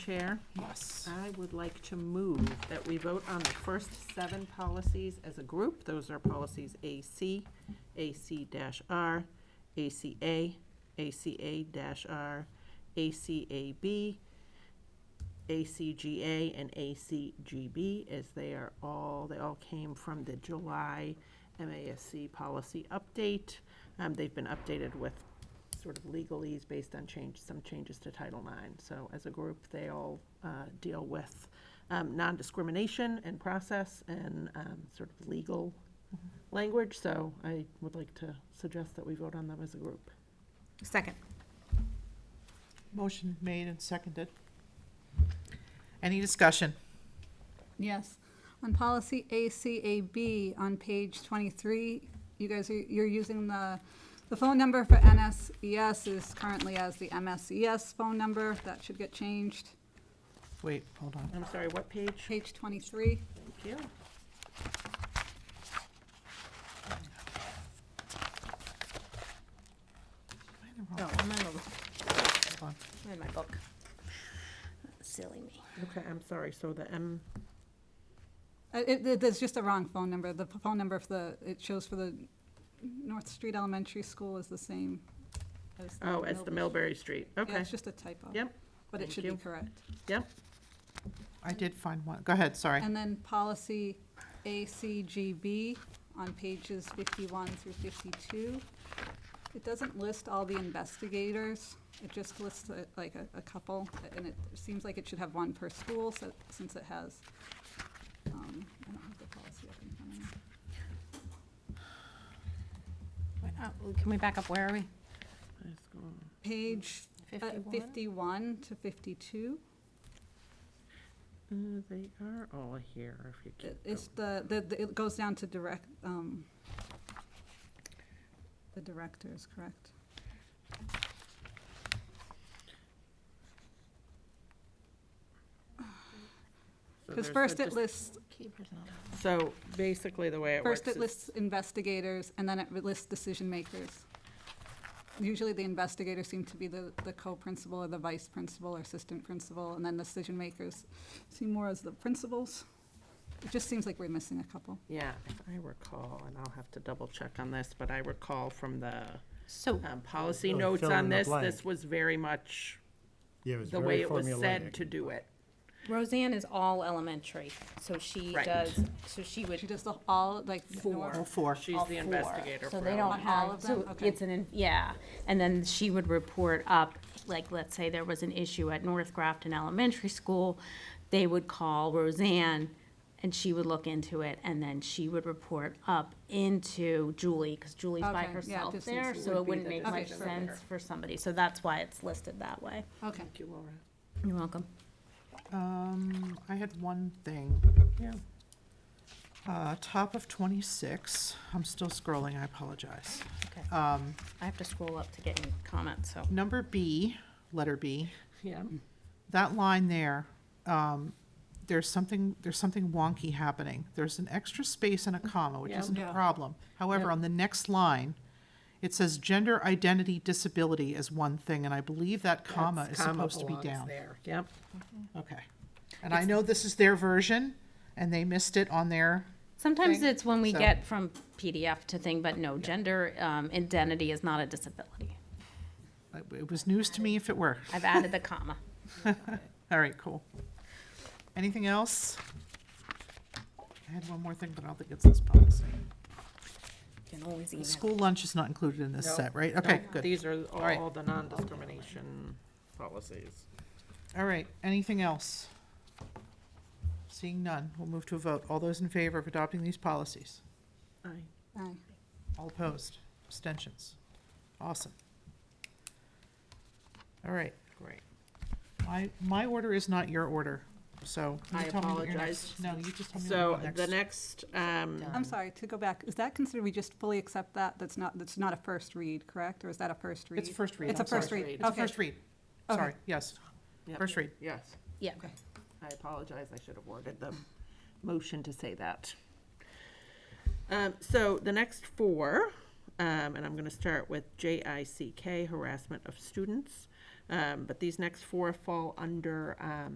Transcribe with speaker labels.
Speaker 1: Chair,
Speaker 2: Yes.
Speaker 1: I would like to move that we vote on the first seven policies as a group. Those are policies AC, AC-R, ACA, ACA-R, ACAB, ACGA, and ACGB, as they are all, they all came from the July MASC policy update. Um, They've been updated with sort of legalese based on change, some changes to Title IX. So as a group, they all uh, deal with um, non-discrimination and process and um, sort of legal language. So I would like to suggest that we vote on them as a group.
Speaker 3: Second.
Speaker 2: Motion made and seconded. Any discussion?
Speaker 4: Yes. On policy ACAB on page 23, you guys, are you're using the, the phone number for NSES is currently as the MSES phone number. That should get changed.
Speaker 2: Wait, hold on.
Speaker 1: I'm sorry, what page?
Speaker 4: Page 23.
Speaker 1: Thank you.
Speaker 2: Am I in the
Speaker 3: No,
Speaker 2: wrong-
Speaker 3: I'm in the,
Speaker 2: hold on.
Speaker 3: I'm in my book. Silly me.
Speaker 1: Okay, I'm sorry, so the M,
Speaker 4: Uh, It, it- there's just a wrong phone number. The p- phone number for the, it shows for the North Street Elementary School is the same as the.
Speaker 1: oh, as the Millbury Street,
Speaker 4: Yeah,
Speaker 1: okay.
Speaker 4: it's just a typo.
Speaker 1: Yep,
Speaker 4: But it
Speaker 1: thank
Speaker 4: should be
Speaker 1: you.
Speaker 4: correct.
Speaker 1: yep,
Speaker 2: I did find one. Go ahead, sorry.
Speaker 4: And then policy ACGB on pages 51 through 52. It doesn't list all the investigators, it just lists uh, like a- a couple, and it seems like it should have one per school, so, since it has, um, I don't have the policy up in front of me.
Speaker 3: Can we back up? Where are we?
Speaker 1: Let's go.
Speaker 4: Page uh,
Speaker 3: 51?
Speaker 4: 51 to 52.
Speaker 1: Uh, they are all here, if you
Speaker 4: It-
Speaker 1: keep going.
Speaker 4: It's the, the- the- it goes down to direct, um, the directors, correct?
Speaker 1: So
Speaker 4: Because
Speaker 1: there's the
Speaker 4: first it
Speaker 1: dis-
Speaker 4: lists
Speaker 3: Keeper's not on.
Speaker 1: So basically, the way it works
Speaker 4: First,
Speaker 1: is.
Speaker 4: it lists investigators, and then it lists decision makers. Usually, the investigators seem to be the, the co-principal or the vice principal or assistant principal, and then decision makers seem more as the principals. It just seems like we're missing a couple.
Speaker 1: Yeah, if I recall, and I'll have to double check on this, but I recall from the
Speaker 3: So,
Speaker 1: um, policy
Speaker 5: Really
Speaker 1: notes
Speaker 5: fill in
Speaker 1: on
Speaker 5: the
Speaker 1: this,
Speaker 5: blank.
Speaker 1: this was very much
Speaker 5: Yeah, it was
Speaker 1: the
Speaker 5: very
Speaker 1: way it was said
Speaker 5: formulaic.
Speaker 1: to do it.
Speaker 3: uh, Roseanne is all elementary, so she
Speaker 1: Right.
Speaker 3: does, so she would.
Speaker 4: She does the, all, like,
Speaker 2: All
Speaker 4: Oh, four.
Speaker 2: four.
Speaker 1: She's
Speaker 3: all
Speaker 1: the
Speaker 3: four.
Speaker 1: investigator
Speaker 3: So
Speaker 1: for
Speaker 3: they don't
Speaker 1: all.
Speaker 4: all
Speaker 3: have,
Speaker 4: of them?
Speaker 3: so
Speaker 4: Okay.
Speaker 3: it's an, in- yeah. And then she would report up, like, let's say there was an issue at North Grafton Elementary School. They would call Roseanne and she would look into it and then she would report up into Julie, because Julie's by
Speaker 4: Okay, yeah,
Speaker 3: herself
Speaker 4: this
Speaker 3: there,
Speaker 4: is-
Speaker 3: so
Speaker 1: would
Speaker 3: it
Speaker 1: be
Speaker 3: wouldn't
Speaker 1: the
Speaker 3: make
Speaker 4: decision
Speaker 3: much
Speaker 4: maker.
Speaker 3: sense for somebody. So that's why it's listed that way.
Speaker 4: Okay.
Speaker 1: Thank you, Laura.
Speaker 3: You're welcome.
Speaker 2: Um, I had one thing.
Speaker 1: Yeah.
Speaker 2: Uh, top of twenty-six. I'm still scrolling, I apologize.
Speaker 3: Okay.
Speaker 2: Um,
Speaker 3: I have to scroll up to get any comments, so.
Speaker 2: number B, letter B.
Speaker 1: Yeah,
Speaker 2: that line there, um, there's something, there's something wonky happening. There's an extra space and a comma, which
Speaker 1: Mm, Yeah.
Speaker 2: isn't a
Speaker 4: Yeah.
Speaker 2: problem. However, on the next line, it says gender identity disability as one thing, and I believe that comma is
Speaker 1: That's-
Speaker 2: supposed to be
Speaker 1: belongs
Speaker 2: down.
Speaker 1: There, yep.
Speaker 2: Okay. And I know this is their version, and they missed it on their,
Speaker 3: Sometimes
Speaker 2: thing,
Speaker 3: it's when we
Speaker 2: so-
Speaker 3: get from PDF to thing, but no, gender um, identity is not a disability.
Speaker 2: it was news to me if it were.
Speaker 3: I've added the comma.
Speaker 2: All right, cool. Anything else? I had one more thing, but I don't think it's this policy.
Speaker 3: You can always email.
Speaker 2: School lunch is not included in this
Speaker 1: No,
Speaker 2: set, right? Okay,
Speaker 1: Nope,
Speaker 2: good.
Speaker 1: These are
Speaker 2: right.
Speaker 1: all the non-discrimination policies.
Speaker 2: All right, anything else? Seeing none, we'll move to a vote. All those in favor of adopting these policies?
Speaker 1: Aye.
Speaker 4: Aye.
Speaker 2: All opposed? Abstentions? Awesome. All right, great. My, my order is not your order, so. you
Speaker 1: I
Speaker 2: tell me what your
Speaker 1: apologize.
Speaker 2: next- No, you just tell me
Speaker 1: So
Speaker 2: what
Speaker 1: the
Speaker 2: your next.
Speaker 1: next, um,
Speaker 4: I'm sorry, to go back, is that considered, we just fully accept that? That's not, that's not a first read, correct? Or is that a first read?
Speaker 2: It's a first read,
Speaker 4: It's
Speaker 2: I'm
Speaker 4: a
Speaker 2: sorry.
Speaker 4: first read,
Speaker 1: It's
Speaker 2: It's a
Speaker 4: okay.
Speaker 2: first read.
Speaker 4: Okay.
Speaker 2: Sorry, yes,
Speaker 1: yep,
Speaker 2: first read.
Speaker 1: yes.
Speaker 3: Yeah,
Speaker 1: I apologize, I should have worded the motion to say that. Um, so the next four, um, and I'm gonna start with J I C K, harassment of students. Um, but these next four fall under, um,